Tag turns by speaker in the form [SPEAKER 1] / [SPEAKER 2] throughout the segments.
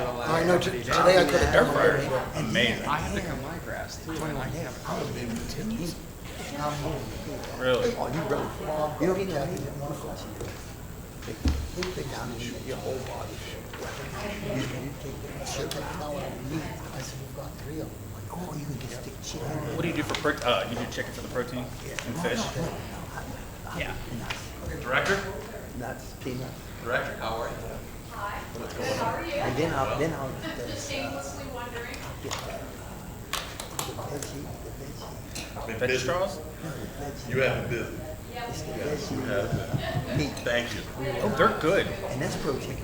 [SPEAKER 1] I know, t- today I cut a dirt fire.
[SPEAKER 2] Amazing,
[SPEAKER 3] I had to cut my grass, twenty-nine days. I would've been continued.
[SPEAKER 2] really.
[SPEAKER 1] Oh, you really, you know, he did, he did wonderful. Take- He would take down and shoot your whole body. You you take the shit right now out of me. I said, we've got three of them. Like, oh, you can just stick shit in there.
[SPEAKER 2] What do you do for pro, uh, you do chicken for the protein and fish? Yeah.
[SPEAKER 4] Director?
[SPEAKER 1] Nuts, peanuts.
[SPEAKER 4] Director, how are you?
[SPEAKER 1] And then I'll, then I'll, the, the
[SPEAKER 5] Just shamelessly wondering.
[SPEAKER 1] veggie, the veggie,
[SPEAKER 2] Veggie straws?
[SPEAKER 4] You have a business.
[SPEAKER 1] it's the veggie meat.
[SPEAKER 4] Thank you.
[SPEAKER 2] Oh, they're good.
[SPEAKER 1] And that's protein.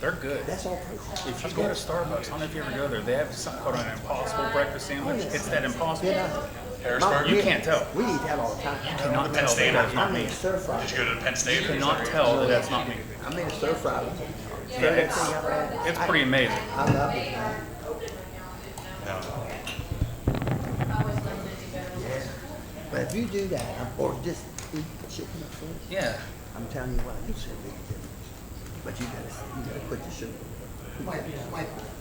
[SPEAKER 2] They're good.
[SPEAKER 1] That's all protein.
[SPEAKER 2] If you go to Starbucks, I don't know if you ever go there, they have something called an impossible breakfast sandwich. It's that impossible.
[SPEAKER 1] Yeah.
[SPEAKER 4] Harrisburg?
[SPEAKER 2] You can't tell.
[SPEAKER 1] We eat that all the time.
[SPEAKER 2] Cannot
[SPEAKER 4] Penn
[SPEAKER 2] tell
[SPEAKER 4] State
[SPEAKER 2] that
[SPEAKER 1] I
[SPEAKER 2] that's not
[SPEAKER 1] made
[SPEAKER 2] me.
[SPEAKER 1] a stir fry.
[SPEAKER 4] Did you go to Penn State? or
[SPEAKER 2] Cannot
[SPEAKER 4] something?
[SPEAKER 2] tell that that's not me.
[SPEAKER 1] I made a stir fry.
[SPEAKER 2] Yeah, it's, it's pretty amazing.
[SPEAKER 1] I love it, man.
[SPEAKER 4] No.
[SPEAKER 1] But if you do that, or just eat chicken at first,
[SPEAKER 2] Yeah.
[SPEAKER 1] I'm telling you what, it's a big difference. But you gotta, you gotta quit the sugar.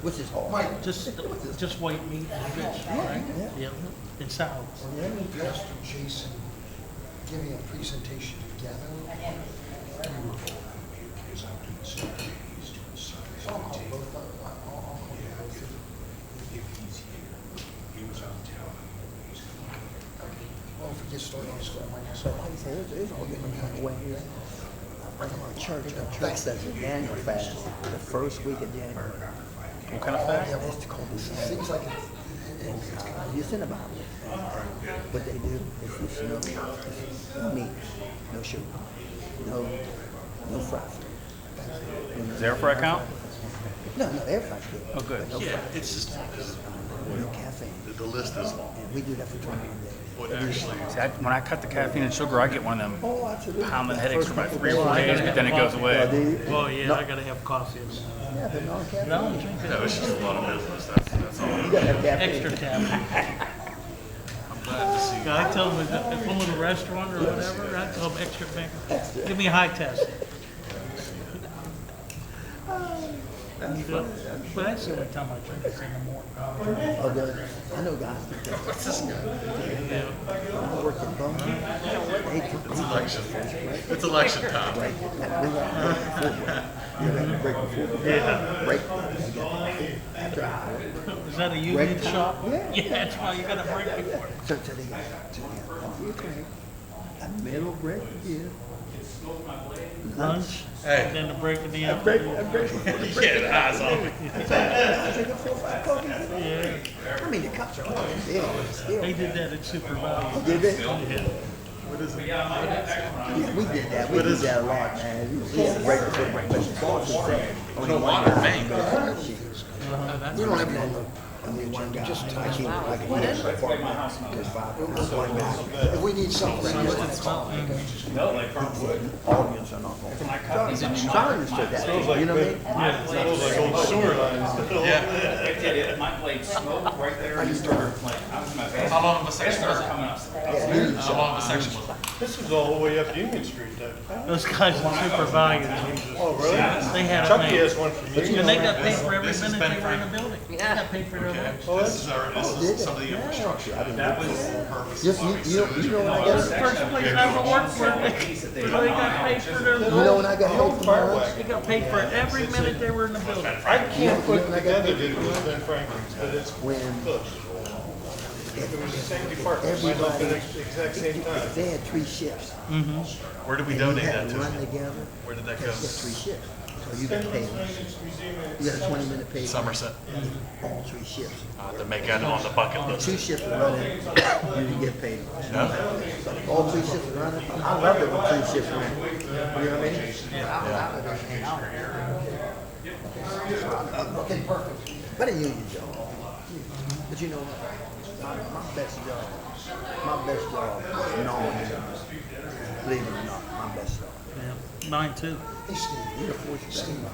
[SPEAKER 1] Which is hard. Mike.
[SPEAKER 6] Just, just white meat and fish, right?
[SPEAKER 1] Yeah.
[SPEAKER 6] Yeah, and salads.
[SPEAKER 7] When I went past Jason giving a presentation to Gatto, we were all out of it, because I'm doing some things to the side. I'll call both of them. Yeah, if, if he's here, he was on town, and he's coming.
[SPEAKER 1] Well, forget starting on stuff like that. But like I said, there's, there's all different kind of ways. Like in our church, our church says the Daniel fast, the first week of January.
[SPEAKER 2] What kind of fast?
[SPEAKER 1] It's called the seems like it's in the Bible. What they do is it's no, it's no meat, no sugar, no, no fried food.
[SPEAKER 2] Is there a fry count?
[SPEAKER 1] No, no, air fried food.
[SPEAKER 2] Oh, good.
[SPEAKER 1] but No
[SPEAKER 6] Yeah,
[SPEAKER 1] fried
[SPEAKER 6] it's just,
[SPEAKER 1] food, no caffeine.
[SPEAKER 4] The- The list is long.
[SPEAKER 1] And we do that for twenty-one days.
[SPEAKER 4] What actually,
[SPEAKER 2] See, I, when I cut the caffeine and sugar, I get one of them
[SPEAKER 1] Oh, absolutely.
[SPEAKER 2] pounding headaches for about three or four days, but then it goes away.
[SPEAKER 6] well, Oh, yeah, I gotta have coffee and
[SPEAKER 1] Yeah, but no caffeine. No.
[SPEAKER 4] no, it's just a lot of business, that's, that's all.
[SPEAKER 1] You gotta have caffeine.
[SPEAKER 6] extra tab. Yeah, I tell them, if if I'm in a restaurant or whatever, I tell them extra bacon. Give me a high test. But that's the only time I drink is in the morning.
[SPEAKER 1] Oh, the- I know guys. that do that.
[SPEAKER 6] Yeah.
[SPEAKER 1] When I worked at Bone, they took me
[SPEAKER 4] Election. It's election time.
[SPEAKER 1] break. We got break before break. You got break before break. Break. You got break After hour.
[SPEAKER 6] Is that a union
[SPEAKER 1] Break time.
[SPEAKER 6] shop?
[SPEAKER 1] Yeah.
[SPEAKER 6] Yeah, that's why you gotta break before.
[SPEAKER 1] So today, today, a middle break here.
[SPEAKER 6] lunch,
[SPEAKER 4] Hey.
[SPEAKER 6] and then the break of the
[SPEAKER 1] Break,
[SPEAKER 6] afternoon.
[SPEAKER 1] a break.
[SPEAKER 4] Yeah, the eyes off.
[SPEAKER 1] I take a four, five coffees. I mean, the cups are all big.
[SPEAKER 6] They
[SPEAKER 1] still.
[SPEAKER 6] did that at Super Value.
[SPEAKER 1] Did it? Yeah, we did that. We did that a lot, man. We had break before break. But the boss was saying, only one guy can go to the sheet.
[SPEAKER 7] We don't have any more.
[SPEAKER 1] Only one guy. I can't, I can't. There's five. There's one guy.
[SPEAKER 7] If we need something, just call.
[SPEAKER 1] audience are not going. So I understood that, you know what I mean?
[SPEAKER 2] My blade smoked right there and started like, I was in my face.
[SPEAKER 4] How long of a section was it?
[SPEAKER 2] coming up.
[SPEAKER 1] Yeah, you need
[SPEAKER 4] How
[SPEAKER 1] some.
[SPEAKER 4] long of a section was it?
[SPEAKER 8] This was all the way up Union Street, though.
[SPEAKER 6] Those guys at Super Value,
[SPEAKER 8] Oh, really?
[SPEAKER 6] they had a
[SPEAKER 8] Chucky
[SPEAKER 1] E.
[SPEAKER 6] man.
[SPEAKER 8] has one from Union.
[SPEAKER 6] And they got paid for every
[SPEAKER 4] This has
[SPEAKER 6] minute
[SPEAKER 4] been
[SPEAKER 6] they were in
[SPEAKER 4] for-
[SPEAKER 6] the building. They got paid for their lunch.
[SPEAKER 4] Okay, this is our, this
[SPEAKER 1] did
[SPEAKER 4] is
[SPEAKER 1] it?
[SPEAKER 4] some of the
[SPEAKER 1] Yeah.
[SPEAKER 4] infrastructure.
[SPEAKER 1] I didn't
[SPEAKER 4] That
[SPEAKER 1] know
[SPEAKER 4] was the purpose
[SPEAKER 1] Yes,
[SPEAKER 4] of
[SPEAKER 1] you,
[SPEAKER 4] why we
[SPEAKER 1] you know,
[SPEAKER 4] said
[SPEAKER 1] you know when I
[SPEAKER 4] we-
[SPEAKER 1] got,
[SPEAKER 6] First place I ever worked for, they they got paid for their
[SPEAKER 1] you know when I
[SPEAKER 6] lunch.
[SPEAKER 1] got help from my lunch?
[SPEAKER 6] They got paid for every minute they were in the building.
[SPEAKER 8] I can't
[SPEAKER 1] You
[SPEAKER 8] put
[SPEAKER 1] know when I got
[SPEAKER 8] together
[SPEAKER 1] help?
[SPEAKER 8] that it was Ben Franklin's, but it's
[SPEAKER 1] When
[SPEAKER 8] close. It was the same department, might not been at the exact same time.
[SPEAKER 1] if they had three shifts,
[SPEAKER 4] Where did we
[SPEAKER 1] and you
[SPEAKER 4] donate
[SPEAKER 1] had
[SPEAKER 4] that
[SPEAKER 1] to
[SPEAKER 4] to?
[SPEAKER 1] run together,
[SPEAKER 4] Where did that
[SPEAKER 1] that's just
[SPEAKER 4] go?
[SPEAKER 1] three shifts. So you got paid, you got a twenty minute pay for
[SPEAKER 4] Somerset,
[SPEAKER 1] all three shifts.
[SPEAKER 4] uh, to make that on the bucket list.
[SPEAKER 1] Two shifts were running, you didn't get paid.
[SPEAKER 4] No?
[SPEAKER 1] All three shifts were running, I loved it when three shifts ran, you know what I mean? I- I would hang out.
[SPEAKER 7] Okay, perfect.
[SPEAKER 1] But a union job. But you know what? My, my best job, my best job was non Believe it or not, my best job.
[SPEAKER 6] Yeah, Mine too.
[SPEAKER 7] Hey, Steve,
[SPEAKER 1] You're a fortune
[SPEAKER 7] Steve,
[SPEAKER 1] teller.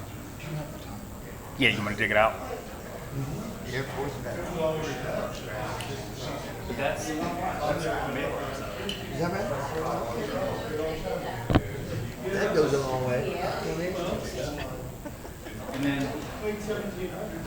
[SPEAKER 7] do you have the time?
[SPEAKER 2] Yeah, you wanna dig it out?
[SPEAKER 1] You're a fortune teller. Is that right? That goes a long way. You know what I mean?